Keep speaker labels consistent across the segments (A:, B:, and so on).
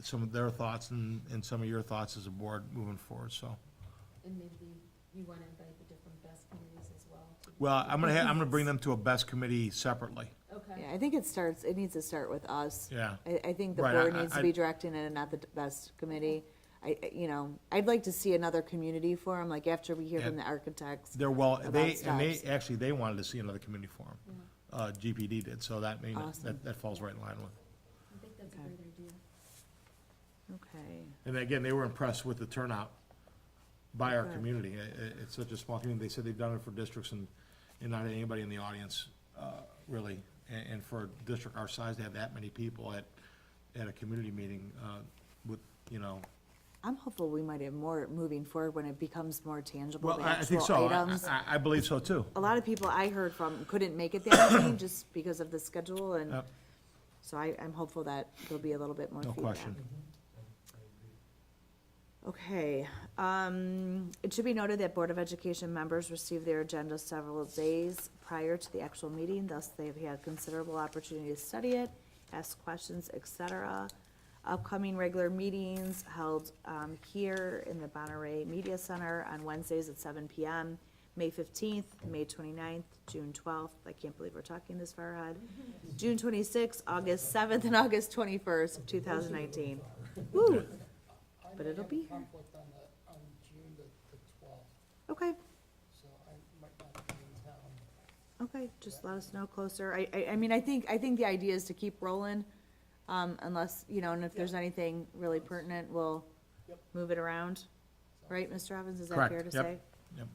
A: some of their thoughts and, and some of your thoughts as a board moving forward, so.
B: And maybe you want to invite the different best committees as well. to-
A: Well, I'm gonna, ha- I'm gonna bring them to a best committee separately,
B: Okay,
C: Yeah, I think it starts, it needs to start with us.
A: yeah.
C: I, I think the
A: Right,
C: board
A: I-
C: needs to
A: I-
C: be directing it and not the best committee. I, I- you know, I'd like to see another community forum, like after we hear from
A: Yeah.
C: the architects.
A: They're well,
C: About
A: they, and they,
C: steps.
A: actually, they wanted to see another community forum. Uh, GPD did, so that may, not-
C: Awesome.
A: that, that falls right in line with.
B: I think that's a
C: Okay.
B: great idea.
C: Okay,
A: And again, they were impressed with the turnout by our
C: Good.
A: community. I- I- it's such a small community. They said they've done it for districts and, and not anybody in the audience, uh, really. And, and for a district our size to have that many people at, at a community meeting, uh, with, you know,
C: I'm hopeful we might have more moving forward when it becomes more tangible,
A: well,
C: the
A: I, I think
C: actual
A: so. I,
C: items.
A: I- I believe so too.
C: A lot of people I heard from couldn't make it that evening just because of the schedule and
A: Yep.
C: so I, I'm hopeful that there'll be a little bit more
A: No
C: feedback.
A: question.
C: Okay, um, it should be noted that Board of Education members receive their agenda several days prior to the actual meeting, thus they've had considerable opportunity to study it, ask questions, et cetera. Upcoming regular meetings held, um, here in the Bonneray Media Center on Wednesdays at seven PM, May fifteenth, May 29th, June twelfth, I can't believe we're talking this far ahead, June twenty-sixth, August seventh, and August twenty-first, two thousand nineteen. Woo!
D: I
C: But
D: may
C: it'll
D: have
C: be
D: a
C: here.
D: conflict on the, on June the, the twelfth,
C: Okay,
D: so I might not be in town.
C: okay, just let us know closer. I, I, I mean, I think, I think the idea is to keep rolling, um, unless, you know, and if there's anything really pertinent, we'll
D: Yep.
C: move it around. Right, Mr. Evans, is that
A: Correct,
C: fair to
A: yep,
C: say?
A: yep.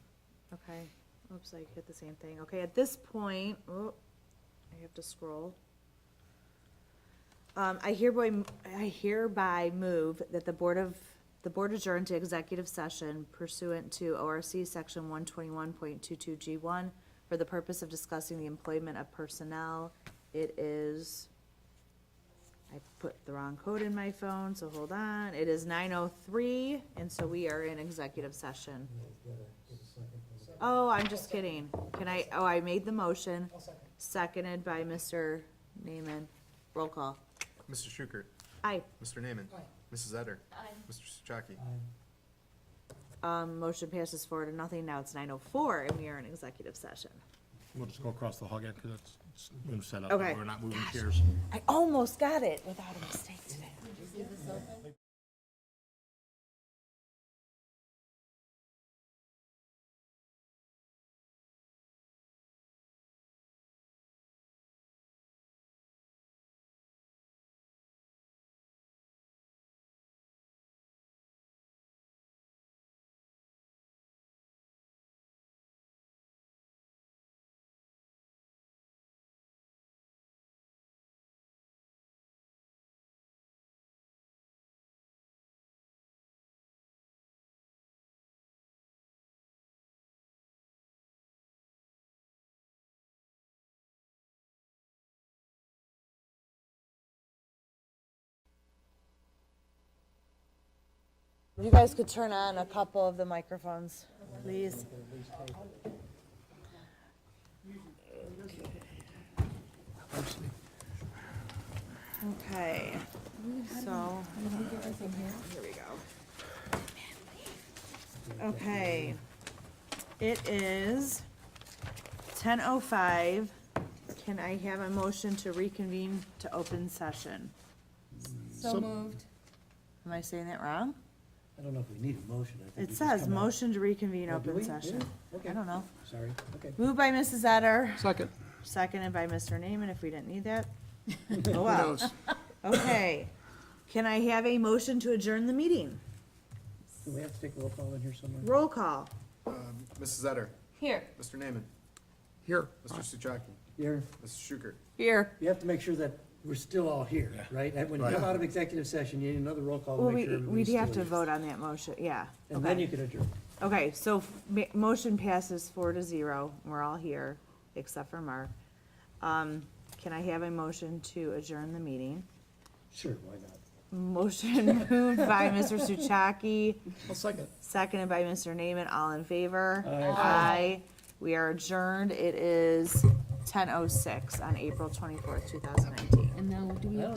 C: Okay, oops, I hit the same thing. Okay, at this point, oh, I have to scroll. Um, I hereby, I hereby move that the Board of, the Board adjourn to executive session pursuant to ORC Section one twenty-one point two-two G one for the purpose of discussing the employment of personnel. It is, I put the wrong code in my phone, so hold on. It is nine oh three, and so we are in executive session. Oh, I'm just kidding. Can I, oh, I made the motion,
D: I'll second.
C: seconded by Mr. Neiman. Roll call.
E: Mr. Schukert,
C: Aye.
E: Mr. Naaman,
D: Aye.
E: Mrs. Etter,
B: I
E: Mr. Souchaki.
C: Um, motion passes four to nothing. Now it's nine oh four and we are in executive session.
A: We'll just go across the hall again, because it's, it's been set up.
C: Okay.
A: We're not moving chairs.
C: I almost got it without a mistake today. You guys could turn on a couple of the microphones, please. Okay, so, here we go. Okay, it is ten oh five. Can I have a motion to reconvene to open session?
B: So moved.
C: Am I saying that wrong?
F: I don't know if we need a motion, I think.
C: It
F: we just
C: says
F: come out-
C: motion to reconvene
F: Oh, do we?
C: open
F: Yeah,
C: session. I
F: okay.
C: don't know.
F: Sorry, okay.
C: Moved by Mrs. Etter,
F: Second.
C: seconded by Mr. Naaman, if we didn't need that. Oh, wow. Okay. Can I have a motion to adjourn the meeting?
F: Do we have to take roll call in here somewhere?
C: Roll call.
E: Um, Mrs. Etter,
B: Here.
E: Mr. Naaman.
A: Here.
E: Mr. Souchaki,
F: You're,
E: Mrs. Schukert.
C: Here.
F: you have to make sure that we're still all here, right? And when you come out of executive session, you need another roll call
C: Well,
F: to make
C: we,
F: sure
C: we'd
F: everybody's still
C: have to
F: here.
C: vote on that motion, yeah.
F: And then
C: Okay.
F: you can adjourn.
C: Okay, so f- ma- motion passes four to zero. We're all here, except for Mark. Um, can I have a motion to adjourn the meeting?
F: Sure, why not?
C: Motion moved by Mr. Souchaki,
F: I'll second.
C: Seconded by Mr. Naaman, all in favor?
F: Aye.
C: We are adjourned, it is ten oh six on April twenty-fourth, two thousand nineteen.
B: And now, do we have